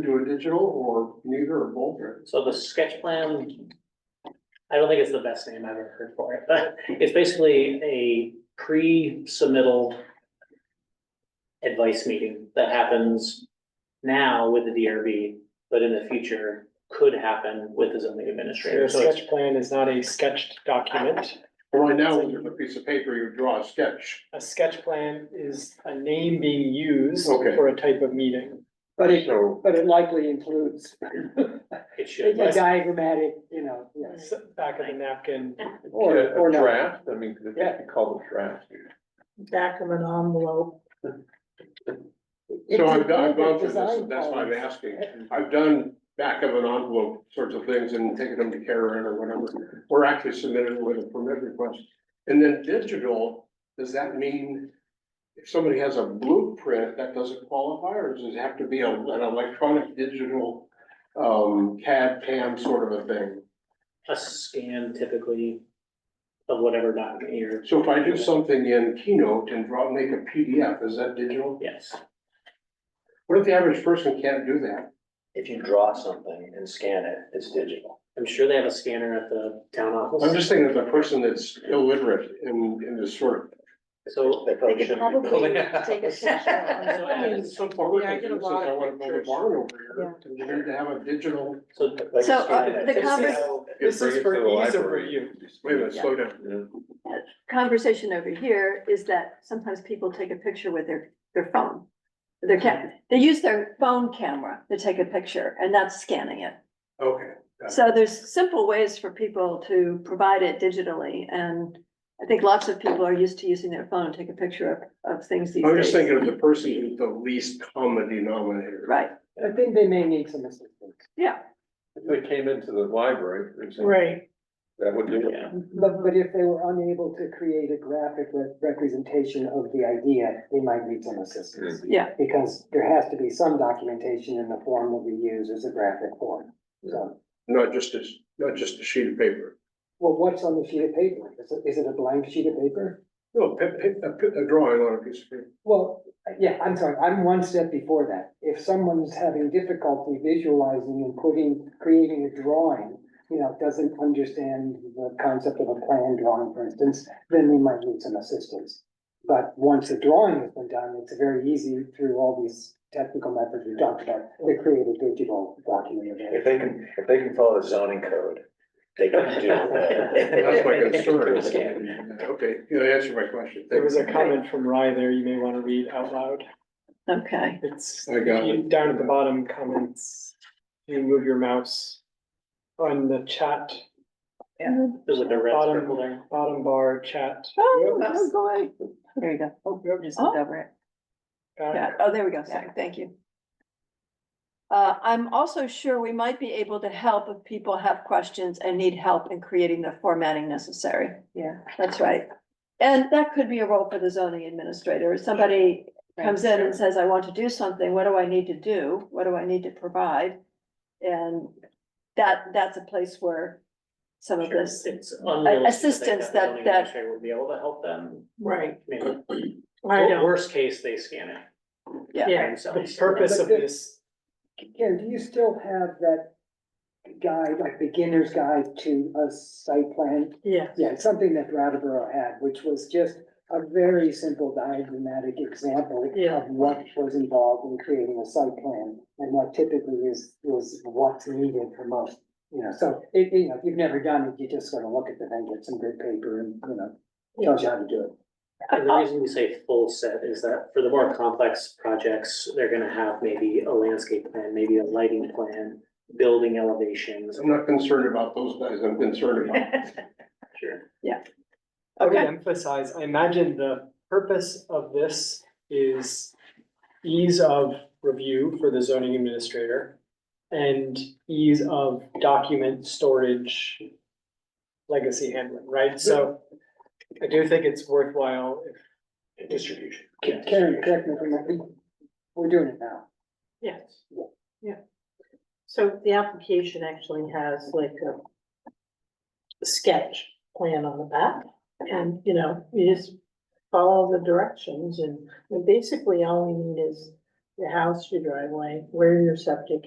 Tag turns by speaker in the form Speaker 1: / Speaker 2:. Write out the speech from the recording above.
Speaker 1: do a digital or neither or both? or-
Speaker 2: So the sketch plan, I don't think it's the best name I've ever heard for it, but it's basically a pre-submittal advice meeting that happens now with the DRB, but in the future could happen with the zoning administrator.
Speaker 3: The
Speaker 2: So it's-
Speaker 3: sketch plan is not a sketched document.
Speaker 1: Well, Right now, with a piece of paper, you draw a sketch.
Speaker 3: A sketch plan is a name being used
Speaker 1: Okay.
Speaker 3: for a type of meeting.
Speaker 4: But it,
Speaker 1: So,
Speaker 4: but it likely includes
Speaker 2: it should,
Speaker 4: a diagrammatic, you know, yes,
Speaker 3: S- Back of the napkin,
Speaker 4: or, or not.
Speaker 5: Draft, I mean, could
Speaker 4: Yeah.
Speaker 5: it be called a draft?
Speaker 6: back of an envelope.
Speaker 1: so
Speaker 4: It's
Speaker 1: I've done, I've gone
Speaker 4: included
Speaker 1: through this,
Speaker 4: design
Speaker 1: that's why I'm
Speaker 4: policy.
Speaker 1: asking. I've done back of an envelope sorts of things and taken them to Karen or whatever, or actually submitted it with a permit request. And then digital, does that mean if somebody has a blueprint, that doesn't qualify, or does it have to be a- an electronic digital um, CAD, CAM sort of a thing?
Speaker 2: a scan typically of whatever document you're,
Speaker 1: So if I do something in Keynote and draw, make a PDF, is that digital?
Speaker 2: yes,
Speaker 1: What if the average person can't do that?
Speaker 7: If you draw something and scan it, it's digital.
Speaker 2: I'm sure they have a scanner at the town
Speaker 1: I'm
Speaker 2: office.
Speaker 1: just thinking of the person that's illiterate and, and is sort of
Speaker 2: So
Speaker 7: They probably shouldn't be building.
Speaker 6: take a
Speaker 2: So
Speaker 1: I mean,
Speaker 2: as-
Speaker 1: so far, we
Speaker 6: Yeah, I
Speaker 1: can
Speaker 6: get a
Speaker 1: use it,
Speaker 6: lot
Speaker 1: I
Speaker 6: of
Speaker 1: wanna build a
Speaker 6: pictures.
Speaker 1: barn over here, and you need to have a digital,
Speaker 2: So
Speaker 7: Like,
Speaker 6: So, uh,
Speaker 7: scan it.
Speaker 6: the
Speaker 7: It's
Speaker 6: convers-
Speaker 7: digital.
Speaker 3: this
Speaker 5: Bring
Speaker 3: is
Speaker 5: it to
Speaker 3: for
Speaker 5: the
Speaker 3: ease of
Speaker 5: library.
Speaker 3: review.
Speaker 1: wait a minute, slow down.
Speaker 5: Yeah.
Speaker 6: Conversation over here is that sometimes people take a picture with their, their phone. Their cam, they use their phone camera to take a picture and that's scanning it.
Speaker 1: Okay,
Speaker 6: So there's simple ways for people to provide it digitally and I think lots of people are used to using their phone to take a picture of, of things these
Speaker 1: I'm just
Speaker 6: days.
Speaker 1: thinking of the person who's the least common denominator.
Speaker 6: Right,
Speaker 4: I think they may need some assistance.
Speaker 6: yeah.
Speaker 5: If they came into the library, for example,
Speaker 6: Right.
Speaker 5: that would do it.
Speaker 2: Yeah,
Speaker 4: But, but if they were unable to create a graphic re- representation of the idea, they might need some assistance.
Speaker 6: Yeah.
Speaker 1: Mm-hmm.
Speaker 4: Because there has to be some documentation in the form that we use as a graphic form. So,
Speaker 1: Not just a, not just a sheet of paper.
Speaker 4: well, what's on the sheet of paper? Is it, is it a blank sheet of paper?
Speaker 1: No, pa- pa- a, pi- a drawing on a piece of paper.
Speaker 4: Well, yeah, I'm sorry, I'm one step before that. If someone's having difficulty visualizing and putting, creating a drawing, you know, doesn't understand the concept of a plan drawing, for instance, then they might need some assistance. But once the drawing has been done, it's very easy through all these technical methods we talked about, to create a digital document. of
Speaker 7: If
Speaker 4: it.
Speaker 7: they can, if they can follow the zoning code, they can do
Speaker 1: That's my
Speaker 7: that.
Speaker 1: concern. Okay, you answered my question.
Speaker 3: There was a comment from Rye there you may want to read out loud.
Speaker 6: Okay.
Speaker 3: It's
Speaker 1: I got
Speaker 3: you-
Speaker 1: it.
Speaker 3: down at the bottom comments. You move your mouse on the chat,
Speaker 2: there's like a red
Speaker 3: Bottom.
Speaker 2: circle there.
Speaker 3: bottom bar chat.
Speaker 6: Oh, I'm going. There you go.
Speaker 3: Oh, yep,
Speaker 6: Just
Speaker 3: oh,
Speaker 6: look over it.
Speaker 3: got it.
Speaker 6: Yeah, oh, there we go, sorry, thank you. Uh, I'm also sure we might be able to help if people have questions and need help in creating the formatting necessary. Yeah. That's right. And that could be a role for the zoning administrator, if somebody comes in and says, I want to do something, what do I need to do? What do I need to provide? And that, that's a place where some of this,
Speaker 2: It's unrealistic to think
Speaker 6: assistance
Speaker 2: the
Speaker 6: that-
Speaker 2: zoning
Speaker 6: that-
Speaker 2: administrator Would be able to help them,
Speaker 6: right,
Speaker 2: maybe,
Speaker 6: I
Speaker 2: Wor- worst case, they scan it.
Speaker 6: Yeah.
Speaker 2: by
Speaker 6: Yeah.
Speaker 2: themselves.
Speaker 3: The purpose of this
Speaker 4: Karen, do you still have that guide, like beginner's guide to a site plan?
Speaker 6: yeah.
Speaker 4: Yeah, it's something that Brattleboro had, which was just a very simple diagrammatic example
Speaker 6: Yeah.
Speaker 4: of what was involved in creating a site plan. And what typically is, was what's needed for most, you know, so it, you know, if you've never done it, you just sort of look at the thing, get some good paper and, you know, tells you how to do it.
Speaker 2: And the reason we say full set is that for the more complex projects, they're gonna have maybe a landscape plan, maybe a lighting plan, building elevations.
Speaker 1: I'm not concerned about those guys, I'm concerned about
Speaker 2: Sure.
Speaker 3: I would emphasize, I imagine the purpose of this is ease of review for the zoning administrator and ease of document storage legacy handling, right? So I do think it's worthwhile if
Speaker 7: Distribution.
Speaker 4: Karen, correct me if I'm wrong, we're doing it now.
Speaker 6: Yes.
Speaker 4: Yeah.
Speaker 6: Yeah.
Speaker 8: So the application actually has like a sketch plan on the back and, you know, you just follow the directions and and basically all you need is your house, your driveway, where your septic